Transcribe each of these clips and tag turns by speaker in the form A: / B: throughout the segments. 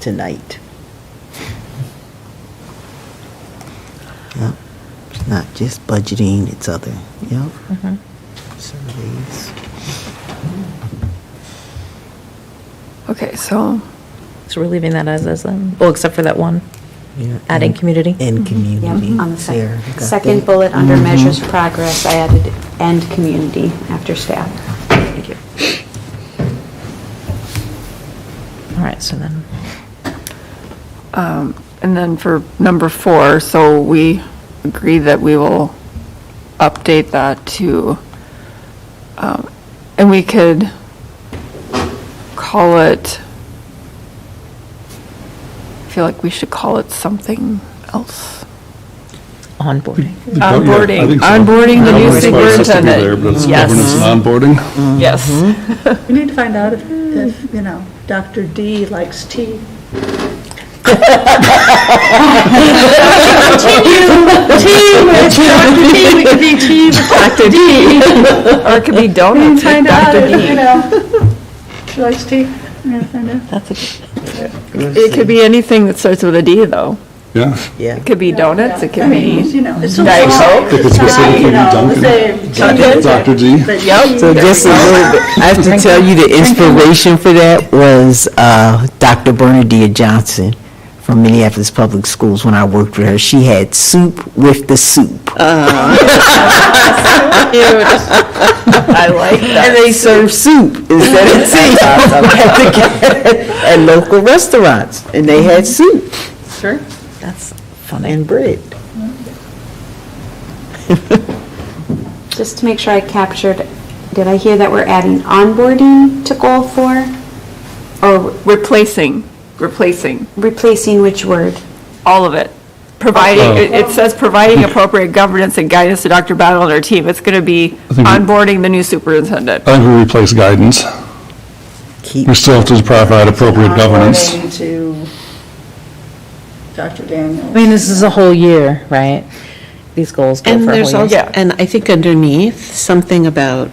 A: tonight. Yep, it's not just budgeting, it's other, yep.
B: Mm-hmm.
A: Surveys.
C: Okay, so,
B: So we're leaving that as is then? Well, except for that one.
A: yeah,
B: Adding
A: and-
B: community? Mm-hmm.
A: And community.
D: Yep, on the
A: Sarah,
D: second,
A: got
D: second
A: that?
D: bullet under
A: Mhm.
D: measures progress, I added "and community" after staff.
B: Thank you. All right, so then,
C: um, and then for number four, so we agree that we will update that to, um, and we could call it, I feel like we should call it something else.
B: onboarding.
E: Yeah, I
C: Onboarding,
E: think so.
C: onboarding the
E: I don't
C: new
E: know why it's supposed to be there,
C: superintendent.
E: But it's
C: Yes.
E: governance and onboarding.
C: Yes.
F: We need to find out if, if, you know, Dr. D likes tea.
C: Dr. D. Or it could be donuts with
F: Find out,
C: Dr.
F: if, you
C: D.
F: know, she likes tea. I'm gonna find out.
C: It could be anything that starts with a D, though.
E: Yeah.
A: Yeah.
C: It could be donuts, it
F: I
C: could
F: mean,
C: be,
F: you know, it's so
C: Diet
F: long.
C: Coke?
E: If it's
F: It's not,
E: specifically
F: you know,
E: Dunkin'.
F: the same
E: Dr. Dr. G.
F: But she-
A: So just a little bit, I have to tell you, the inspiration for that was uh, Dr. Bernadette Johnson from Minneapolis Public Schools, when I worked with her. She had soup with the soup.
C: Uh-huh. I like that.
A: And they serve soup instead of tea at local restaurants, and they had soup
B: That's funny.
A: and bread.
D: Just to make sure I captured, did I hear that we're adding onboarding to goal four? Or
C: Oh, Replacing, replacing,
D: replacing which word?
C: all of it.
E: Oh.
C: Providing, it- it says providing appropriate governance and guidance to Dr. Battle and her team. It's going to be
E: I think we- Oh.
C: onboarding the new superintendent.
E: I think we replace guidance.
A: Keep,
E: We still have to provide appropriate governance.
F: According to Dr. Daniels.
B: I mean, this is a whole year, right? These goals go
G: And
B: for a
G: there's
B: whole
G: also,
B: year.
C: Yeah.
G: and I think underneath, something about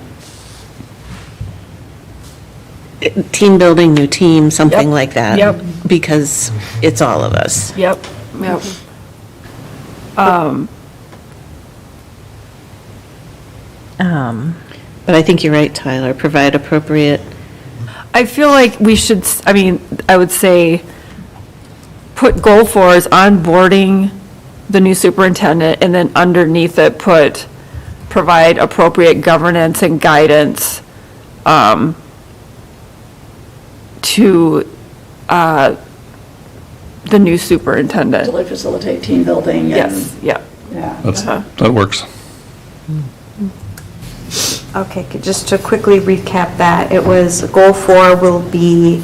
G: eh, team building, new team, something
C: Yep.
G: like that.
C: Yep.
G: Because it's all of us.
C: Yep, yep.
B: Um,
G: But I think you're right, Tyler, provide appropriate
C: I feel like we should, s- I mean, I would say, put goal four is onboarding the new superintendent, and then underneath it, put, provide appropriate governance and guidance um, to uh, the new superintendent.
F: Really facilitate team building and.
C: Yes, yeah.
F: Yeah.
E: That's,
C: Uh-huh.
E: that works.
D: Okay, c- just to quickly recap that, it was, goal four will be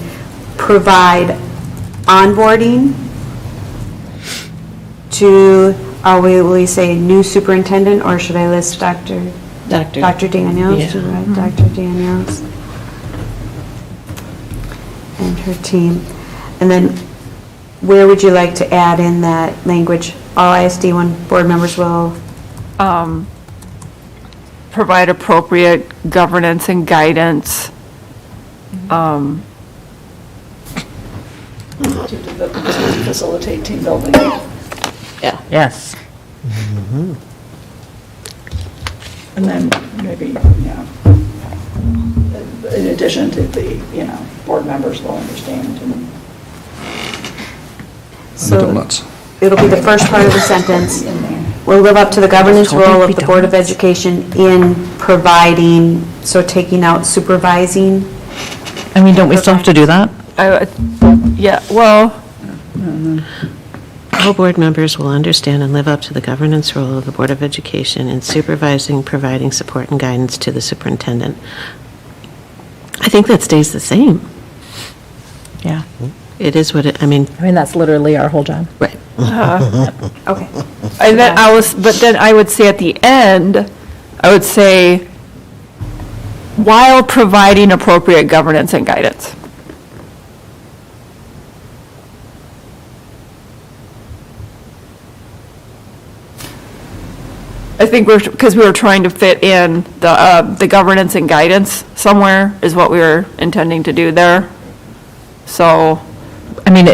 D: provide onboarding to, are we, will we say new superintendent, or should I list Dr.?
G: Dr.
D: Dr. Daniels,
G: Yeah.
D: to write Dr. Daniels. And her team. And then, where would you like to add in that language? All ISD one board members will
C: Um, Provide appropriate governance and guidance. Um,
F: To develop- to Facilitate team building.
B: Yes.
F: And then maybe, you know, in addition to the, you know, board members will understand and.
E: And the
D: So-
E: donuts.
D: It'll be the first part of the sentence.
F: In there.
D: Will live up to the governance role of the Board of Education in providing, so taking out supervising.
B: I mean, don't we still have to do that?
C: I, yeah, well.
G: All board members will understand and live up to the governance role of the Board of Education in supervising, providing support and guidance to the superintendent. I think that stays the same.
B: Yeah.
G: It is what it, I mean,
B: I mean, that's literally our whole job.
G: right.
D: Okay.
C: And then I was, but then I would say at the end, I would say, while providing appropriate governance and guidance. I think we're, because we were trying to fit in the, uh, the governance and guidance somewhere is what we were intending to do there. So.
B: I mean, it-